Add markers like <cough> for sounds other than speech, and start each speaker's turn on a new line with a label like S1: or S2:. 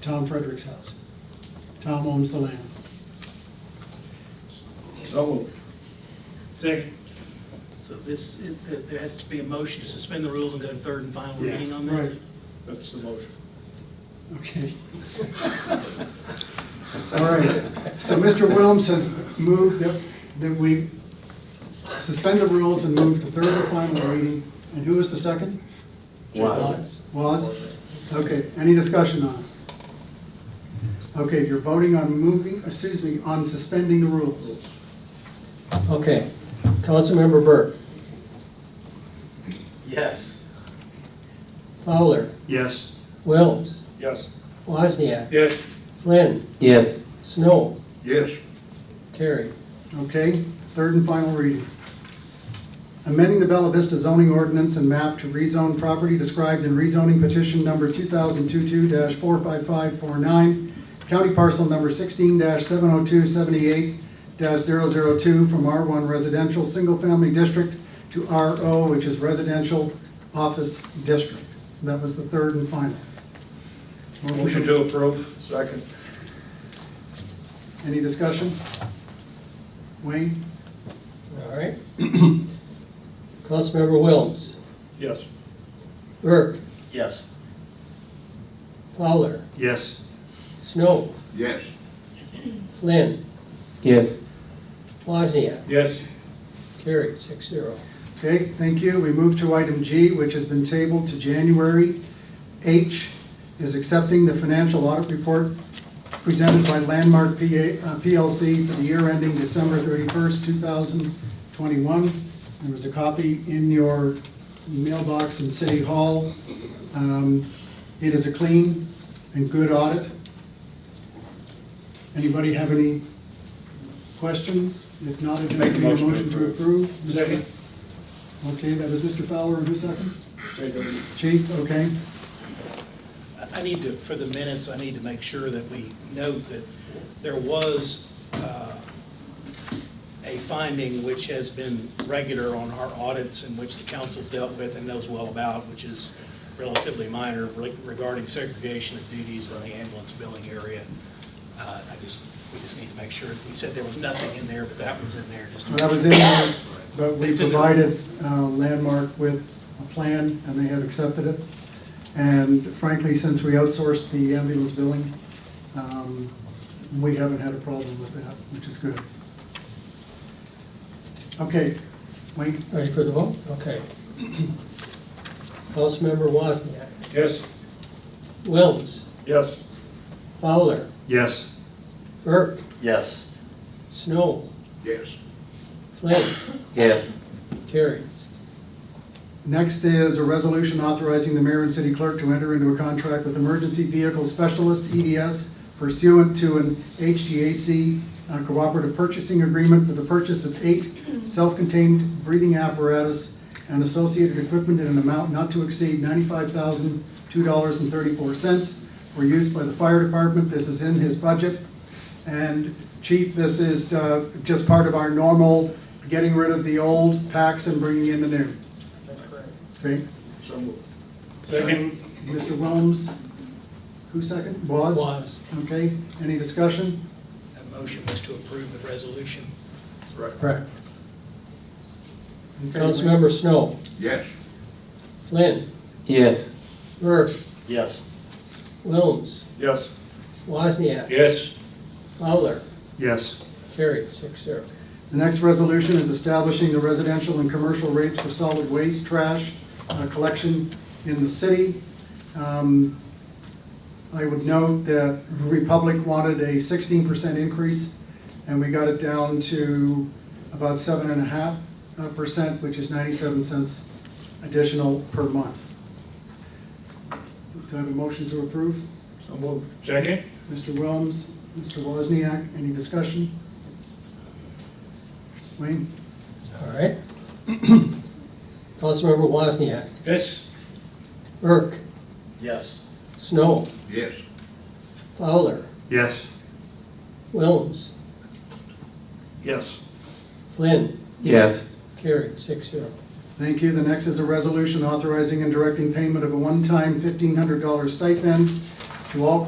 S1: Tom Frederick's house. Tom owns the land.
S2: So moved.
S3: Second.
S4: So this, is- th- there has to be a motion to suspend the rules and go to third and final
S3: Yeah,
S4: reading on this?
S1: right.
S2: That's the motion.
S1: Okay. All right, so Mr. Wilms has moved that, that we suspend the rules and move to third and final reading. And who was the second?
S5: Was.
S1: Was? Okay, any discussion on it? Okay, you're voting on moving, excuse me, on suspending the rules.
S5: Okay. Councilmember Burke,
S4: Yes.
S5: Fowler,
S3: Yes.
S5: Wilms,
S2: Yes.
S5: Wozniak,
S3: Yes.
S5: Flynn. Yes. Snow,
S2: Yes.
S5: Terry.
S1: Okay, third and final reading. Amending the Bella Vista zoning ordinance and map to rezone property described in rezoning petition number 2022-45549, county parcel number 16-70278-002 from R1 Residential Single Family District to RO, which is Residential Office District. That was the third and final.
S2: Motion to approve. Second.
S1: Any discussion? Wayne?
S5: All right. <clears throat> Councilmember Wilms,
S2: Yes.
S5: Burke,
S4: Yes.
S5: Fowler,
S3: Yes.
S5: Snow,
S2: Yes.
S5: Flynn. Yes. Wozniak,
S3: Yes.
S5: Terry, six zero.
S1: Okay, thank you. We move to item G, which has been tabled to January. H is accepting the financial audit report presented by Landmark PA uh, PLC for the year ending December 31st, 2021. There was a copy in your mailbox in City Hall. Um, It is a clean and good audit. Anybody have any questions? If not, I'd
S2: Make a
S1: entertain a
S2: motion to
S1: motion to
S2: approve.
S1: approve. Mr.
S3: Second.
S1: Okay, that was Mr. Fowler, and who's second? Chief, okay.
S4: I need to, for the minutes, I need to make sure that we note that there was uh, a finding which has been regular on our audits and which the council's dealt with and knows well about, which is relatively minor re- regarding segregation of duties in the ambulance billing area. Uh, I just, we just need to make sure, we said there was nothing in there, but that was in there just to.
S1: That was in there, but we
S4: It's in there.
S1: provided uh, Landmark with a plan, and they have accepted it. And frankly, since we outsourced the ambulance billing, um, we haven't had a problem with that, which is good. Okay, Wayne?
S5: Ready for the vote? Okay. <clears throat> Councilmember Wozniak,
S3: Yes.
S5: Wilms,
S2: Yes.
S5: Fowler,
S3: Yes.
S5: Burke,
S2: Yes.
S5: Snow,
S2: Yes.
S5: Flynn,
S2: Yes.
S5: Terry.
S1: Next is a resolution authorizing the mayor and city clerk to enter into a contract with Emergency Vehicle Specialist, EDS, pursuant to an HGAC uh, cooperative purchasing agreement for the purchase of eight self-contained breathing apparatus and associated equipment in an amount not to exceed $95,002.34 for use by the fire department. This is in his budget. And Chief, this is uh, just part of our normal getting rid of the old packs and bringing in the new. Okay,
S2: So moved.
S3: Second.
S1: Mr. Wilms, who second? Was?
S5: Was.
S1: Okay, any discussion?
S4: That motion was to approve the resolution.
S5: Correct.
S1: Okay,
S5: Councilmember Snow,
S2: Yes.
S5: Flynn. Yes. Burke,
S2: Yes.
S5: Wilms,
S2: Yes.
S5: Wozniak.
S3: Yes.
S5: Fowler,
S3: Yes.
S5: carried, six zero.
S1: The next resolution is establishing the residential and commercial rates for solid waste trash uh, collection in the city. Um, I would note that Republic wanted a 16% increase, and we got it down to about 7.5%, uh, which is 97 cents additional per month. Do I have a motion to approve?
S2: So moved.
S3: Second.
S1: Mr. Wilms, Mr. Wozniak, any discussion? Wayne?
S5: All right. Councilmember Wozniak,
S3: Yes.
S5: Burke,
S4: Yes.
S5: Snow,
S2: Yes.
S5: Fowler,
S3: Yes.
S5: Wilms,
S3: Yes.
S5: Flynn,
S6: Yes,
S5: carried, six zero.
S1: Thank you. The next is a resolution authorizing and directing payment of a one-time $1,500 stipend to all